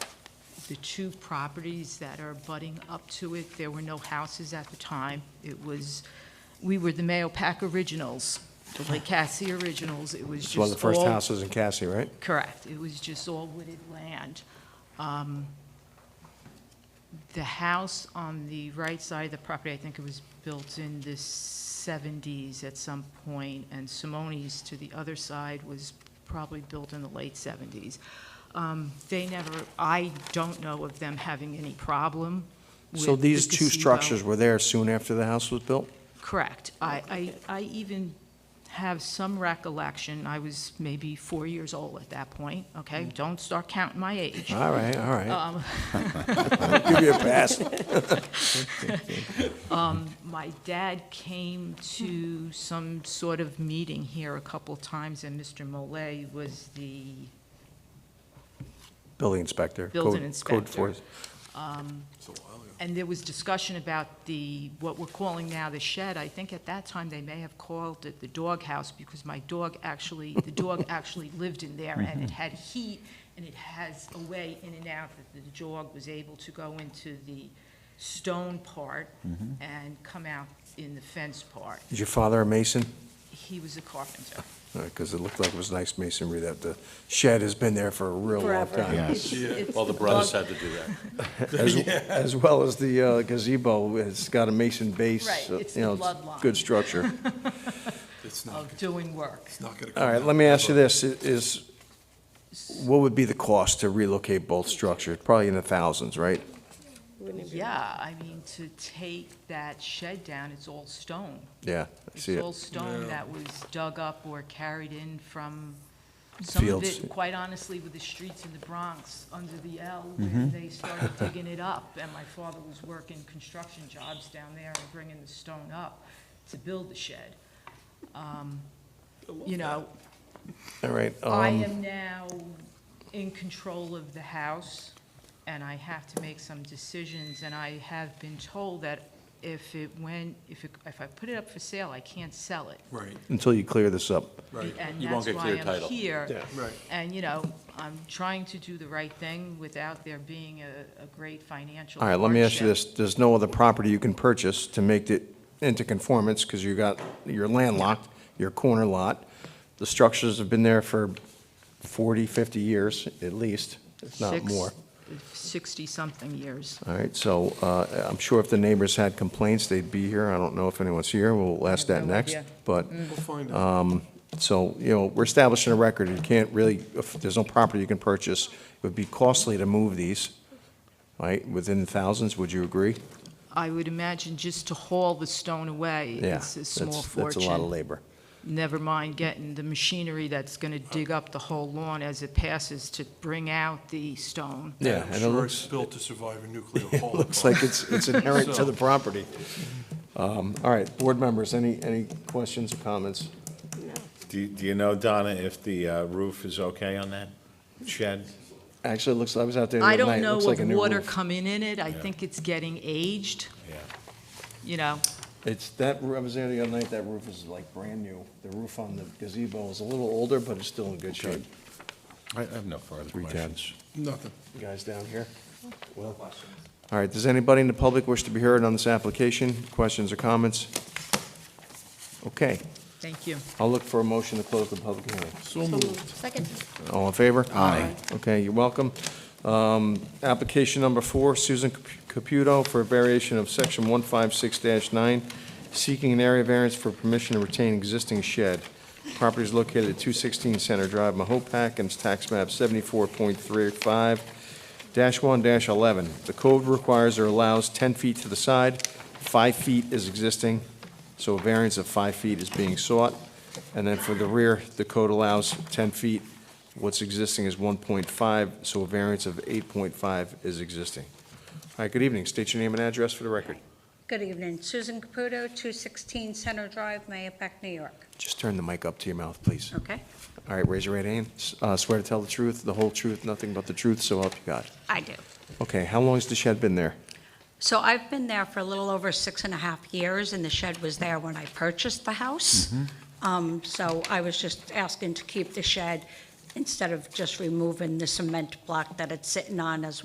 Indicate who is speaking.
Speaker 1: the two properties that are butting up to it. There were no houses at the time. It was, we were the Mayo Pack Originals, the Lake Cassie Originals. It was
Speaker 2: It's
Speaker 1: just
Speaker 2: one of the first
Speaker 1: all-
Speaker 2: houses in Cassie, right?
Speaker 1: Correct. It was just all wooded land. Um, The house on the right side of the property, I think it was built in the 70s at some point, and Simone's to the other side was probably built in the late 70s. Um, They never, I don't know of them having any problem with
Speaker 2: So
Speaker 1: the
Speaker 2: these two
Speaker 1: gazebo.
Speaker 2: structures were there soon after the house was built?
Speaker 1: Correct. I, I, I even have some recollection, I was maybe four years old at that point, okay? Don't start counting my age.
Speaker 2: All right, all
Speaker 1: Um.
Speaker 2: right. I'll Give you a pass.
Speaker 1: My dad came to some sort of meeting here a couple times, and Mr. Mole was the,
Speaker 2: Building inspector.
Speaker 1: Building
Speaker 2: code-
Speaker 1: inspector.
Speaker 2: Code force.
Speaker 1: and there was discussion about the, what we're calling now the shed. I think at that time, they may have called it the doghouse, because my dog actually, the dog actually lived in there, and it
Speaker 3: Mm-hmm.
Speaker 1: had heat, and it has a way in and out that the dog was able to go into the stone part
Speaker 3: Mm-hmm.
Speaker 1: and come out in the fence part.
Speaker 2: Is your father a mason?
Speaker 1: He was a carpenter.
Speaker 2: Because it looked like it was nice masonry, that the shed has been there for a real long
Speaker 3: Forever.
Speaker 2: time.
Speaker 4: Yes.
Speaker 1: It's-
Speaker 4: Well, the brothers had to do that.
Speaker 2: As as well as the uh, gazebo, it's got a mason base.
Speaker 1: Right,
Speaker 2: uh,
Speaker 1: it's
Speaker 2: you
Speaker 1: the
Speaker 2: know,
Speaker 1: bloodline.
Speaker 2: Good structure.
Speaker 5: It's not,
Speaker 1: Of doing work.
Speaker 5: it's not gonna.
Speaker 2: All right,
Speaker 5: come
Speaker 2: let me
Speaker 5: out.
Speaker 2: ask you this, i- is, what would be the cost to relocate both structures? Probably in the thousands, right?
Speaker 3: Wouldn't it be-
Speaker 1: Yeah, I mean, to take that shed down, it's all stone.
Speaker 2: Yeah, I
Speaker 1: It's
Speaker 2: see it.
Speaker 1: all
Speaker 5: Yeah.
Speaker 1: stone that was dug up or carried in from, some of
Speaker 2: Fields.
Speaker 1: it, quite honestly, with the streets in the Bronx, under the L, where
Speaker 2: Mm-hmm.
Speaker 1: they started digging it up. And my father was working construction jobs down there and bringing the stone up to build the shed. Um, You know,
Speaker 2: All right.
Speaker 1: I
Speaker 2: um,
Speaker 1: am now in control of the house, and I have to make some decisions, and I have been told that if it went, if it, if I put it up for sale, I can't sell it.
Speaker 5: Right,
Speaker 2: Until you clear this up.
Speaker 5: right,
Speaker 1: And
Speaker 4: You won't
Speaker 1: that's
Speaker 4: get
Speaker 1: why
Speaker 4: clear
Speaker 1: I'm
Speaker 4: title.
Speaker 1: here.
Speaker 5: right.
Speaker 1: And, you know, I'm trying to do the right thing without there being a, a great financial
Speaker 2: All right, let me ask you
Speaker 1: hardship.
Speaker 2: this, there's no other property you can purchase to make it into conformance, because you got, you're landlocked, your corner lot. The structures have been there for 40, 50 years, at least, if not
Speaker 1: Six-
Speaker 2: more.
Speaker 1: Sixty-something years.
Speaker 2: All right, so uh, I'm sure if the neighbors had complaints, they'd be here. I don't know if anyone's here. We'll ask
Speaker 1: I
Speaker 2: that
Speaker 1: have no
Speaker 2: next.
Speaker 1: idea. Mm.
Speaker 2: But, um,
Speaker 5: We'll find out.
Speaker 2: so, you know, we're establishing a record. You can't really, if there's no property you can purchase, it would be costly to move these, right? Within thousands, would you agree?
Speaker 1: I would imagine just to haul the stone away,
Speaker 2: Yeah,
Speaker 1: it's a
Speaker 2: that's-
Speaker 1: small
Speaker 2: That's
Speaker 1: fortune.
Speaker 2: a lot of labor.
Speaker 1: never mind getting the machinery that's going to dig up the whole lawn as it passes to bring out the stone.
Speaker 2: Yeah,
Speaker 5: I'm
Speaker 2: and it
Speaker 5: sure it's
Speaker 2: looks,
Speaker 5: built to survive a nuclear
Speaker 2: it looks
Speaker 5: holocaust.
Speaker 2: like it's it's inherent to the property. Um, All right, board members, any, any questions or comments?
Speaker 6: Do you- do you know, Donna, if the uh, roof is okay on that shed?
Speaker 2: Actually, it looks, I was out there the
Speaker 1: I
Speaker 2: other night.
Speaker 1: don't
Speaker 2: It
Speaker 1: know
Speaker 2: looks like
Speaker 1: of
Speaker 2: a new
Speaker 1: water
Speaker 2: roof.
Speaker 1: coming in it. I think it's getting aged,
Speaker 6: Yeah.
Speaker 1: you know.
Speaker 2: It's that, roo- I was there the other night, that roof is like brand new. The roof on the gazebo is a little older, but it's still in good shape.
Speaker 6: I have no further questions.
Speaker 5: Nothing.
Speaker 2: You guys down here? Will? All right, does anybody in the public wish to be heard on this application? Questions or comments? Okay,
Speaker 1: Thank you.
Speaker 2: I'll look for a motion to close the public hearing.
Speaker 5: So moved.
Speaker 3: Second.
Speaker 2: All in favor?
Speaker 6: Aye.
Speaker 2: Okay, you're welcome. Um, Application number four, Susan Caputo for a variation of section 156-9, seeking an area variance for permission to retain existing shed. Property is located at 216 Center Drive, Mahopac, and it's tax map 74.35-1-11. The code requires or allows 10 feet to the side, 5 feet is existing, so a variance of 5 feet is being sought. And then for the rear, the code allows 10 feet, What's existing is 1.5, so a variance of 8.5 is existing. All right, good evening. State your name and address for the record.
Speaker 3: Good evening, Susan Caputo, 216 Center Drive, Mayapack, New York.
Speaker 2: Just turn the mic up to your mouth, please.
Speaker 3: Okay,
Speaker 2: All right, raise your right hand. S- uh, Swear to tell the truth, the whole truth, nothing but the truth, so help you God.
Speaker 3: I do.
Speaker 2: Okay, how long has the shed been there?
Speaker 3: So I've been there for a little over six and a half years, and the shed was there when I purchased the house. Um, So I was just asking to keep the shed instead of just removing the cement block that it's sitting on as